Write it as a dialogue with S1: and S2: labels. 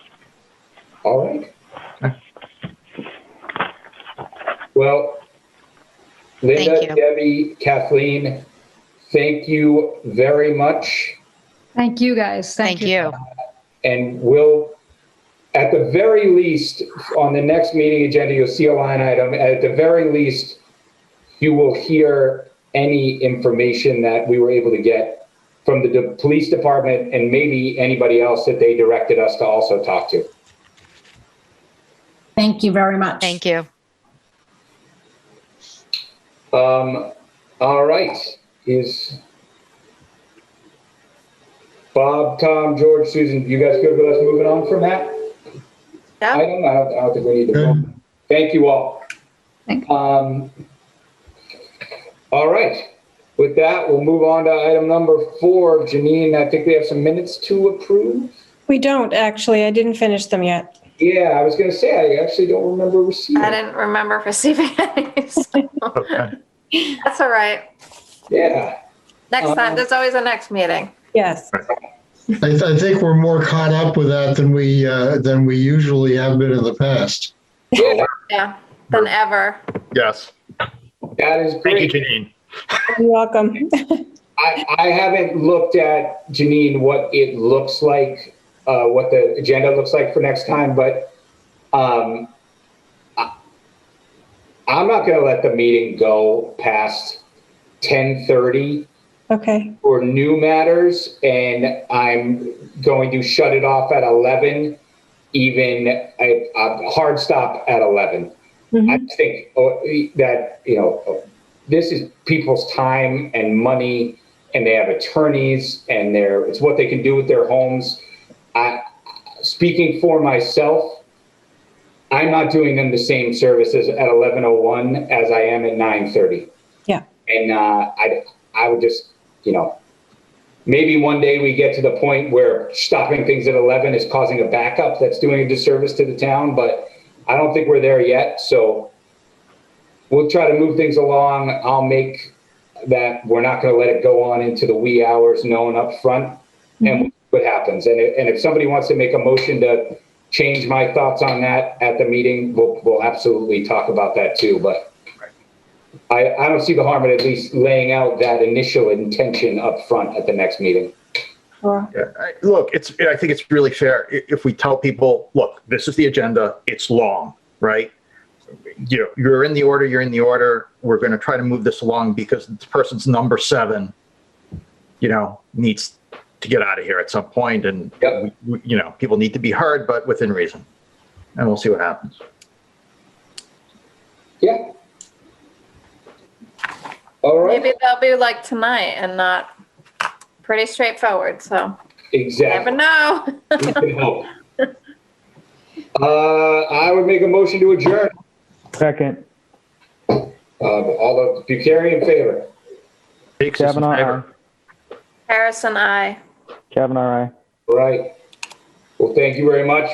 S1: All right. Well,
S2: Thank
S1: Linda,
S2: you.
S1: Debbie, Kathleen, thank you very much.
S3: Thank you, guys.
S2: Thank you.
S1: And we'll, at the very least, on the next meeting agenda, you'll see a line item. At the very least, you will hear any information that we were able to get from the de- police department and maybe anybody else that they directed us to also talk to.
S4: Thank you very much.
S2: Thank you.
S1: Um, all right, is Bob, Tom, George, Susan, you guys good with us moving on from that?
S2: Yeah.
S1: I don't, I don't, I don't think we need to. vote. Thank you all.
S3: Thank-
S1: Um, all right, with that, we'll move on to item number four. Janine, I think we have some minutes to approve.
S5: We don't, actually. I didn't finish them yet.
S1: Yeah, I was gonna say, I actually don't remember receiving.
S6: I didn't remember receiving any. so
S7: Okay.
S6: That's all right.
S1: Yeah,
S6: Next
S1: Um,
S6: time, there's always a next meeting.
S5: Yes.
S7: I, th- I think we're more caught up with that than we, uh, than we usually have been in the past.
S1: yeah,
S6: Yeah, than ever.
S7: Yes.
S1: that is great.
S7: Janine.
S5: You're welcome.
S1: I, I haven't looked at, Janine, what it looks like, uh, what the agenda looks like for next time, but, um, I- I'm not gonna let the meeting go past ten thirty
S5: Okay.
S1: for new matters, and I'm going to shut it off at eleven, even, a a hard stop at eleven. I
S5: Mhm.
S1: just think oh, that, you know, oh, this is people's time and money and they have attorneys and they're, it's what they can do with their homes. I, speaking for myself, I'm not doing them the same services at 11:01 as I am at 9:30.
S5: Yeah.
S1: And, uh, I, I would just, you know, maybe one day we get to the point where stopping things at 11 is causing a backup that's doing a disservice to the town, but I don't think we're there yet, so we'll try to move things along. I'll make that, we're not gonna let it go on into the wee hours known up front, and what happens. And if, and if somebody wants to make a motion to change my thoughts on that at the meeting, we'll, we'll absolutely talk about that too, but I, I don't see the harm in at least laying out that initial intention up front at the next meeting.
S5: Sure.
S8: Yeah, I- Look, it's, I think it's really fair i- if we tell people, look, this is the agenda, it's long, right? You know, you're in the order, you're in the order, we're going to try to move this along because this person's number seven, you know, needs to get out of here at some point and,
S1: Yep.
S8: we- we- you know, people need to be heard, but within reason. And we'll see what happens.
S1: Yeah. All right,
S6: Maybe they'll be like tonight and not pretty straightforward, so never
S1: exactly.
S6: know.
S1: We can help. Uh, I would make a motion to adjourn.
S9: Second,
S1: Uh, all the Buchari in favor.
S8: Big system
S9: Kavanaugh,
S8: favor.
S9: aye.
S6: Harrison, I.
S9: Kavanaugh, aye.
S1: All Right. Well, thank you very much.